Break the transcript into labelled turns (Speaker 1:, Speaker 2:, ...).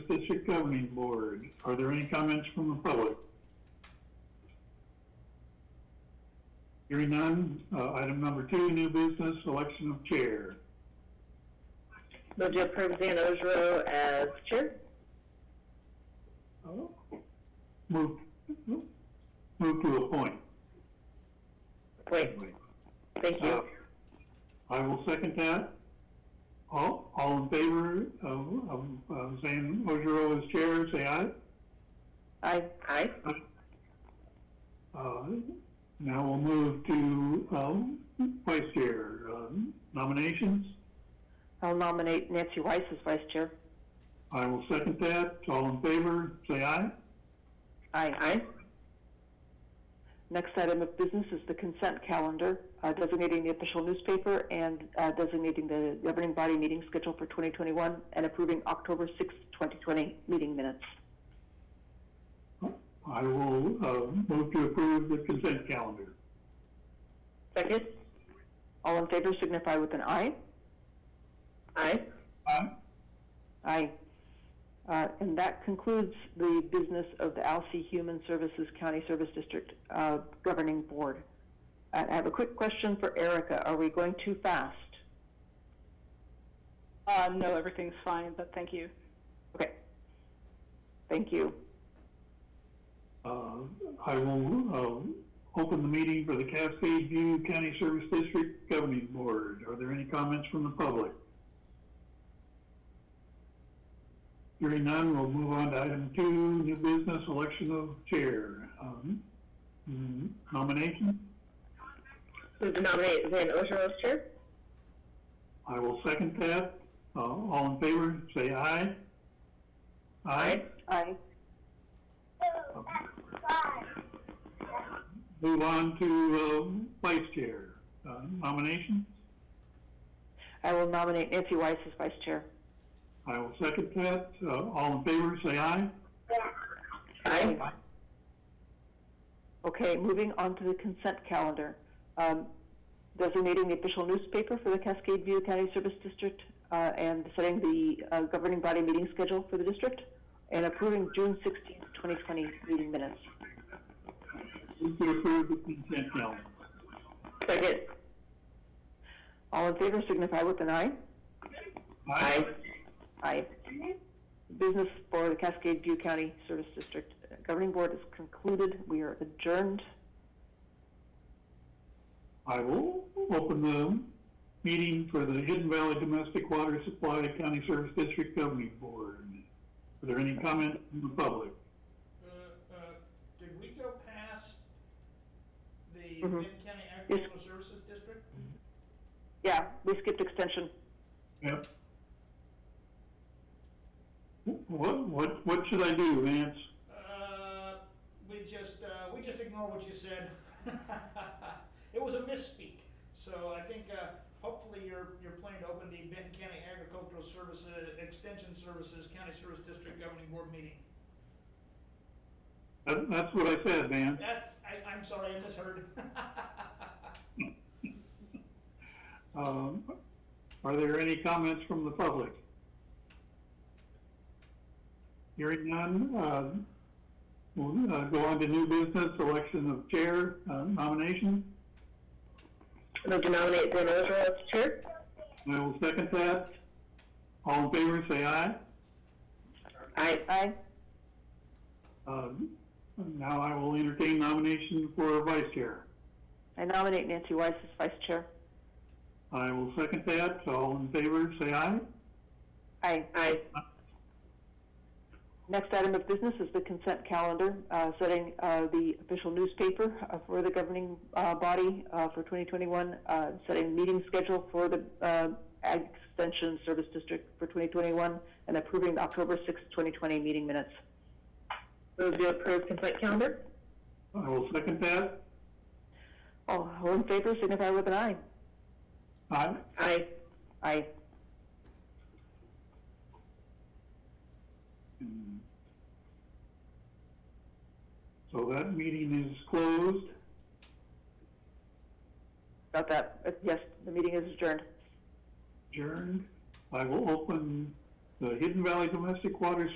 Speaker 1: District Governing Board. Are there any comments from the public? Hearing none, uh, item number two, new business, election of chair.
Speaker 2: Move to approve Dan Ogerow as chair.
Speaker 1: Oh. Move, move to appoint.
Speaker 2: Wait, thank
Speaker 1: Uh,
Speaker 2: you.
Speaker 1: I will second that. All, all in favor of, of, of Zane Ogerow as chair, say aye.
Speaker 2: Aye. Aye.
Speaker 1: Uh, Now we'll move to, um, vice chair, um, nominations.
Speaker 2: I'll nominate Nancy Weiss as vice chair.
Speaker 1: I will second that. All in favor, say aye.
Speaker 2: Aye. Aye. Next item of business is the consent calendar, uh, designating the official newspaper and uh, designating the governing body meeting schedule for 2021 and approving October 6, 2020 meeting minutes.
Speaker 1: I will, uh, move to approve the consent calendar.
Speaker 2: Second. All in favor signify with an aye. Aye.
Speaker 1: Aye.
Speaker 2: Aye. Uh, And that concludes the business of the Alsea Human Services County Service District uh, Governing Board. I I have a quick question for Erica. Are we going too fast?
Speaker 3: Uh, no, everything's fine, but thank you.
Speaker 2: Okay. Thank you.
Speaker 1: Uh, I will, uh, open the meeting for the Cascade View County Service District Governing Board. Are there any comments from the public? Hearing none, we'll move on to item two, new business, election of chair. Um, mm, Nomination?
Speaker 2: Move to nominate Van Ogerow as chair.
Speaker 1: I will second that. Uh, all in favor, say aye. Aye.
Speaker 2: Aye.
Speaker 1: Move on to, uh, vice chair. Uh, nomination?
Speaker 2: I will nominate Nancy Weiss as vice chair.
Speaker 1: I will second that. Uh, all in favor, say aye.
Speaker 2: Aye. Okay, moving on to the consent calendar. Um, Designating the official newspaper for the Cascade View County Service District uh, and setting the uh, governing body meeting schedule for the district and approving June 16, 2020 meeting minutes.
Speaker 1: Move to approve the consent calendar.
Speaker 2: Second. All in favor signify with an aye.
Speaker 1: Aye.
Speaker 2: Aye. Business for the Cascade View County Service District uh, Governing Board is concluded. We are adjourned.
Speaker 1: I will open the meeting for the Hidden Valley Domestic Water Supply County Service District Governing Board. Are there any comments from the public?
Speaker 4: Uh, uh, Did we go past the
Speaker 2: Mhm.
Speaker 4: Benton County Agricultural Services District?
Speaker 2: Yeah, we skipped extension.
Speaker 1: Yep. What, what, what should I do, Vance?
Speaker 4: Uh, We just, uh, we just ignore what you said. It was a misspeak. So I think uh, hopefully you're, you're planning to open the Benton County Agricultural Services, Extension Services, County Service District Governing Board meeting.
Speaker 1: That, that's what I said, Vance.
Speaker 4: That's, I, I'm sorry, I misheard.
Speaker 1: Um, are there any comments from the public? Hearing none, uh, we'll, uh, go on to new business, election of chair, uh, nomination.
Speaker 2: Move to nominate Dan Ogerow as chair.
Speaker 1: I will second that. All in favor, say aye.
Speaker 2: Aye. Aye.
Speaker 1: Um, now I will entertain nomination for vice chair.
Speaker 2: I nominate Nancy Weiss as vice chair.
Speaker 1: I will second that. All in favor, say aye.
Speaker 2: Aye. Aye. Next item of business is the consent calendar, uh, setting uh, the official newspaper uh, for the governing uh, body uh, for 2021, uh, setting meeting schedule for the uh, Ag Extension Service District for 2021, and approving the October 6, 2020 meeting minutes. Move to approve consent calendar.
Speaker 1: I will second that.
Speaker 2: All all in favor signify with an aye.
Speaker 1: Aye.
Speaker 2: Aye. Aye.
Speaker 1: So that meeting is closed.
Speaker 2: About that, Uh, yes, the meeting is adjourned.
Speaker 1: adjourned. I will open the Hidden Valley Domestic Water